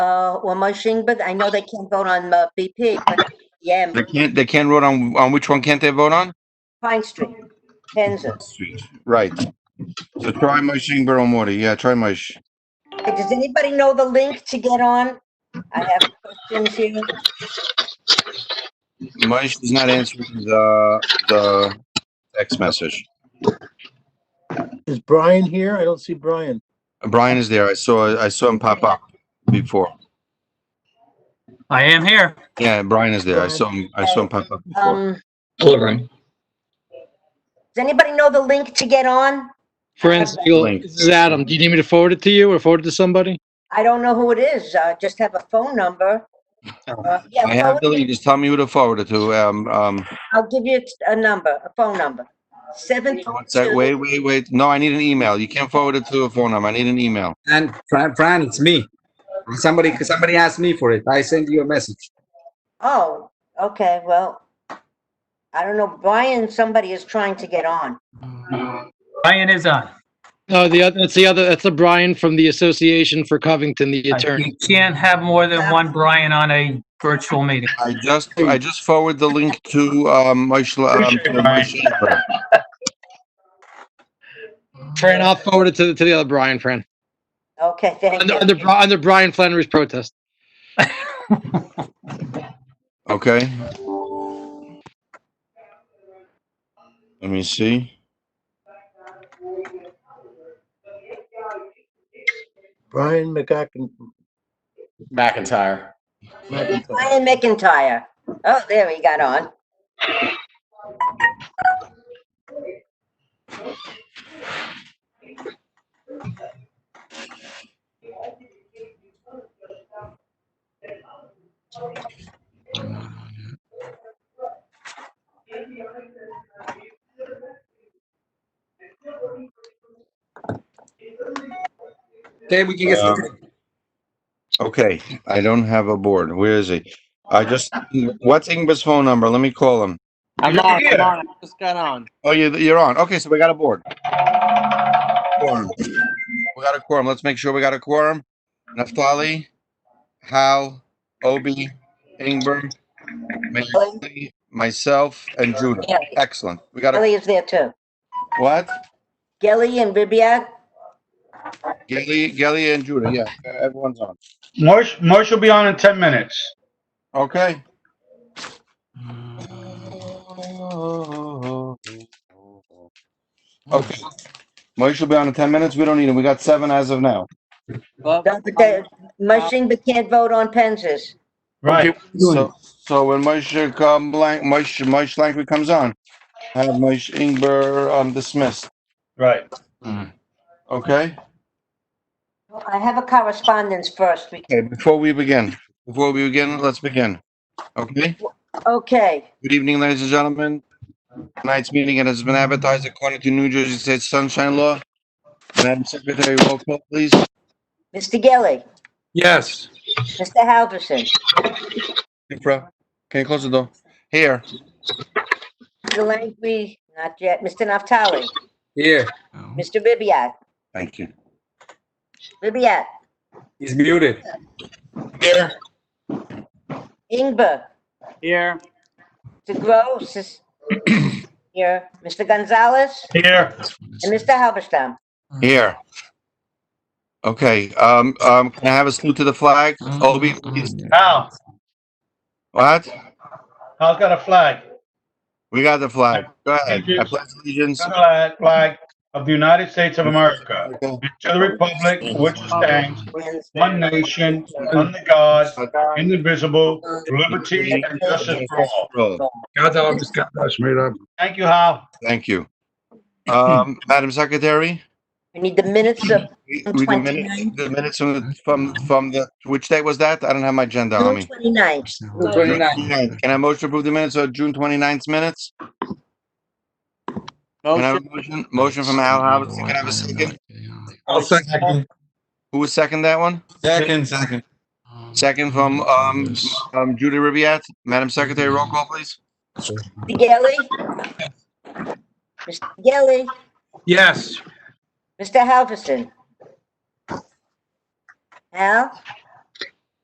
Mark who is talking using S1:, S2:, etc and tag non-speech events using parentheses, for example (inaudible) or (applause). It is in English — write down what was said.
S1: uh, one motion, but I know they can't vote on uh, BP, but yeah,
S2: They can't, they can't vote on, on which one can't they vote on?
S1: Pine Street, Kansas.
S2: Street. Right. So try motion, Borough Mori, yeah, try motion.
S1: Does anybody know the link to get on? I have questions here.
S2: Mosh is not answering the, the text message.
S3: Is Brian here? I don't see Brian.
S2: Brian is there, I saw, I saw him pop up before.
S4: I am here.
S2: Yeah, Brian is there, I saw him, I saw him pop up before.
S1: Um,
S5: Hello, Brian.
S1: does anybody know the link to get on?
S5: Friends, you'll-
S2: Link.
S5: this is Adam. Do you need me to forward it to you or forward it to somebody?
S1: I don't know who it is. I just have a phone number. Uh, yeah,
S2: I have the
S1: phone-
S2: link, just tell me who to forward it to, um, um,
S1: I'll give you a number, a phone number. Seven.
S2: one sec, wait, wait, wait, no, I need an email, you can't forward it to a phone number, I need an email.
S6: And Fran, Fran, it's me. Somebody, somebody asked me for it. I sent you a message.
S1: Oh, okay, well, I don't know. Brian, somebody is trying to get on.
S4: Brian is on.
S5: No, the other, that's the other, that's the Brian from the Association for Covington, the attorney.
S4: You can't have more than one Brian on a virtual meeting.
S2: I just, I just forward the link to, um, Mosh, um, to Mosh.
S5: Fran, I'll forward it to, the- to the other Brian, Fran.
S1: Okay, thank
S5: Under, under,
S1: you.
S5: Bri- under Brian Flannery's protest.
S2: Okay. Let me see.
S3: Brian McAcken.
S7: McIntyre.
S3: McIntyre.
S1: Brian McIntyre. Oh, there he got on.
S6: Okay, we can get
S2: Um,
S6: started.
S2: Okay, I don't have a board. Where is he? I just, what's Ingber's phone number? Let me call him.
S8: I'm on, I'm on, I just got on.
S2: Oh, you, you're on. Okay, so we got a board. Quorum. We got a quorum. Let's make sure we got a quorum. Naftali, Hal, Obi, Ingber, Mayor, myself, and Judah.
S1: Yeah,
S2: Excellent. We got a,
S1: Gelly is there too.
S2: what?
S1: Gelly and Ribbiat?
S2: Gelly, Gelly and Judah, yeah, everyone's on.
S9: Mosh, Mosh will be on in 10 minutes.
S2: Okay. Okay. Moish will be on in ten minutes. We don't need him. We got seven as of now.
S8: Well,
S1: No, but they- Mushing, but can't vote on Penzas.
S9: Right.
S2: So, so when Moish come blank, Moish, Moish Langley comes on, have Moish Ingber um, dismissed.
S9: Right.
S2: Okay.
S1: I have a correspondence first. We-
S2: Okay. Before we begin, before we begin, let's begin. Okay.
S1: Okay.
S2: Good evening, ladies and gentlemen. Tonight's meeting it has been advertised according to New Jersey State Sunshine Law. Madam Secretary, roll call, please.
S1: Mr. Gelli,
S6: Yes.
S1: Mr. Halverson,
S2: Infra, can you close the door? Here.
S1: Mr. Langley, not yet, Mr. Naftali,
S6: Here.
S1: Mr. Ribbiat,
S2: Thank you.
S1: Ribbiat,
S6: He's muted.
S2: Here.
S1: Ingber,
S8: here,
S1: Mr. Gross is here, Mr. Gonzalez,
S9: Here.
S1: and Mr. Halberstam.
S2: Here. Okay, um, um, can I have a salute to the flag?
S9: Mm-hmm.
S2: Obi, please.
S9: Now,
S2: What?
S9: I've got a flag.
S2: We got the flag. Go ahead.
S9: Thank you.
S2: I pledge allegiance.
S9: Flag flag of the United States of America. To the republic which stands, one nation, under God, indivisible, liberty and justice for all.
S6: God, I just got that made up.
S9: Thank you, Hal.
S2: Thank you.
S9: (laughs)
S2: Um, Madam Secretary?
S1: We need the minutes of
S2: we- we- The minutes- the minutes from, the- from, from the, which date was that? I don't have my agenda on
S1: June
S2: me.
S1: 29th.
S2: Can I motion to approve the minutes of June 29th minutes? Can I
S8: motion,
S2: have a motion, motion from Al Halverson? Can I have a second?
S7: I'll second.
S2: Who was second that one?
S7: Second, second.
S2: Second from, um, um, Judy Ribbiat. Madam Secretary, roll call, please.
S1: Mr. Gelli? Mr. Gelli,
S6: Yes.
S1: Mr. Halverson? Hal,